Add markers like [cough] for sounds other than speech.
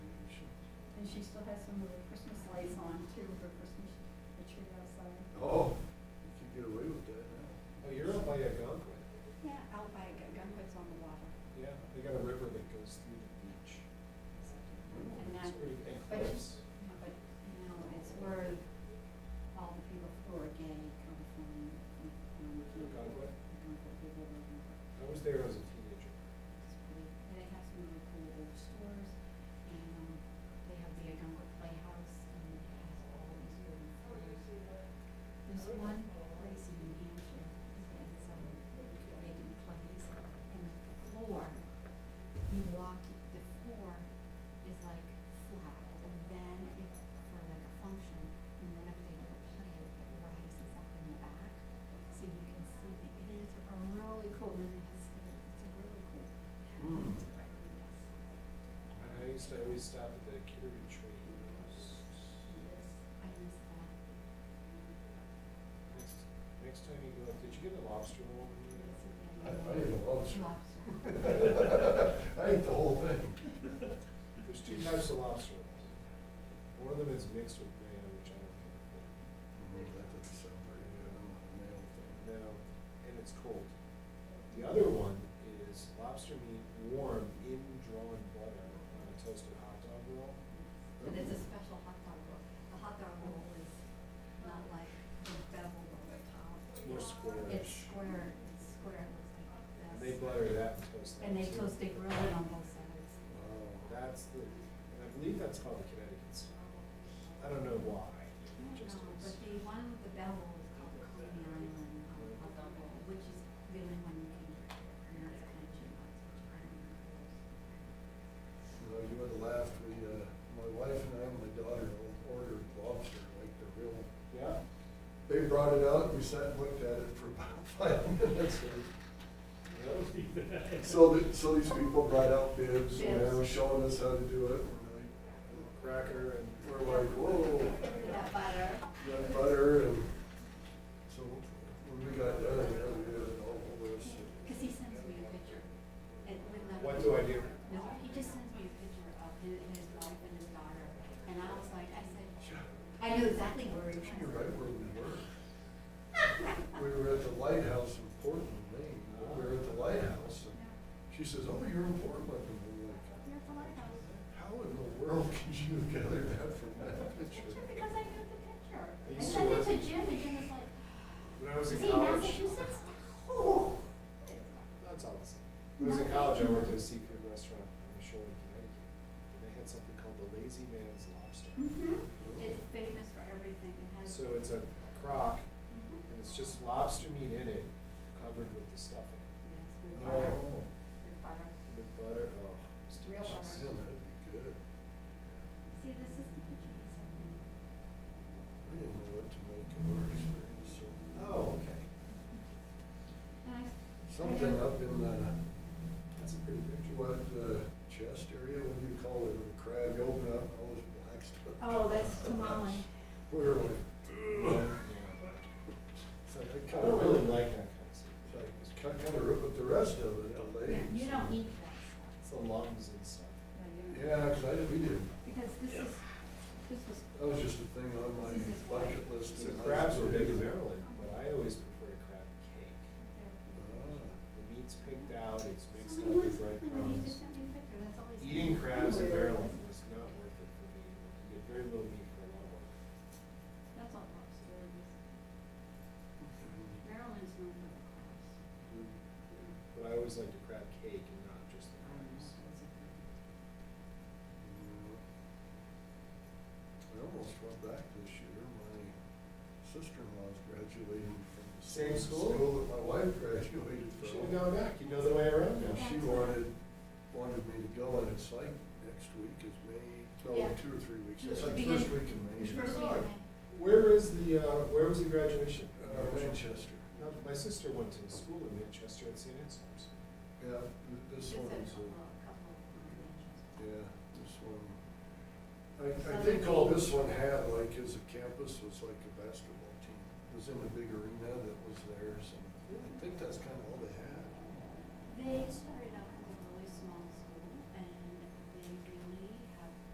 she still has some of her Christmas lights on too, her Christmas tree outside. Oh, you can get away with that now. [laughs] Oh, you're up by Algonquin. Yeah, out by Gun- Gunquit's on the water. Yeah, they got a river that goes through the beach. And It's that, pretty, and but- cliffs. yeah, but, you know, it's where all the people who are gay come from, from- from the people. Gunkwit? The Gunkwit people live in Gunkwit. I was there as a teenager. It's pretty, and they have some really cool old stores, and, um, they have the Gunkwit Playhouse, and it has all these really cool. There's one place in New Hampshire, it's, um, they do plays, and the floor, you walk, the floor is like flat, and then it's for like a function, and then if they do a play, it rises up in the back, so you can see the, it is a really cool, and it's, it's a really cool. Mm. I used to always stop at the Kittery Tree. I miss that. Next, next time you go, up, did you get a lobster roll? when you went up? I, I ate a lobster. [laughs] Lobster. I ate the whole thing. There's two types of lobster rolls. One of them is mixed with mayo, which I don't care for. Mm, That doesn't sound very good, I'm not a male thing. Now, and it's cold. The other one is lobster meat warm in drawn butter on a toasted hot dog roll. But it's a special hot dog roll. The hot dog roll is not like the bevel roll at top. It's more It's squarish. square, it's square, it looks like They this. butter that and toast that. And they too. toast it grilled it on both sides. Wow. That's the, and I believe that's called the Connecticut style. I don't know why. I It don't just know, Um, is. but the one with the bevel is called the Coney Island um, hot dog roll, which is the only one you can, and that's kind of cheap. You know, you would laugh, we, uh, my wife and I and my daughter ordered lobster, like the real, Yeah, they brought it out, we sat and looked at it for about [laughs] five minutes. that would be bad. So, the- so these people brought out bibs, and they Bibs. were showing us how to do it, and Cracker and. I, we're like, whoa. That butter. Got butter and, so when we got done, yeah, we had all of this. Cause he sends me a picture. And when the- What do I do? No, he just sends me a picture of his, his wife and his daughter, and I was like, I said, I knew exactly where he was. You're right where we were. We were at the lighthouse in Portland, Maine, but we were at the lighthouse, and she says, oh, you're in Portland, and we're like, You're at the lighthouse. how in the world [laughs] could you gather that from that picture? Picture, because I knew the picture. I I used to sent it work- to Jim, and Jim was like, When I was is in he in college. Massachusetts? Oh. That's all it's. When I was in college, I worked at a seafood restaurant on the shore in Connecticut. And they had something called the Lazy Man's Lobster. Mm-hmm. It's famous for everything, it has. So it's a crock Mhm. and it's just lobster meat in it, covered with the stuffing. Yes, with butter, Oh, with butter. With butter, oh. it's Real delicious. man, butter. that'd be good. See, this is the picture he sent me. I didn't know what to make of our experience, so. Oh, okay. And I. Something up in the uh, That's a pretty picture. What, uh, chest area, what do you call it, the crab, you open up, all this black stuff. Oh, that's tamale. We were like, Yeah. ugh. It's like, I I kinda don't really really, like that kind of stuff. it's like, it's kinda, kinda ripped with the rest of it, the legs. You don't eat that It's the lungs and stuff. stuff. No, you don't. Yeah, 'cause I, didn't- we didn't, Because this is, this was. that was just a thing on my This is why. bucket list. So in high crabs are school. big in Maryland, but I always prefer crab cake. Ah. The meat's picked out, it's mixed up Somebody was, with bread somebody just crumbs. sent me a picture, that's all he sent. Eating crabs in Weird. Maryland was not worth it for me. You get very little meat for a lot of work. That's all lobster. is. Ah. Maryland's known for the crabs. But I always like the crab cake and not just the crabs. I almost went back this year, my sister-in-law's graduating from. the Same school? School that my wife graduated You from. should have gone back, you know the way around And now. she wanted, wanted me to go, and it's like next week is May, no, Yeah. two or three weeks, It's it's like beginning- first week in May. It's first week of May. Where is the, uh, where was the graduation? Uh, Manchester, No, My sister went to school in Manchester at St. Anselm's. yeah, th- this Just a one couple, is, a- couple of yeah, this one. I, I think all this one had, like, as a campus, was like a basketball team, it was in a big arena that was theirs, and I think that's kind of all they had. They started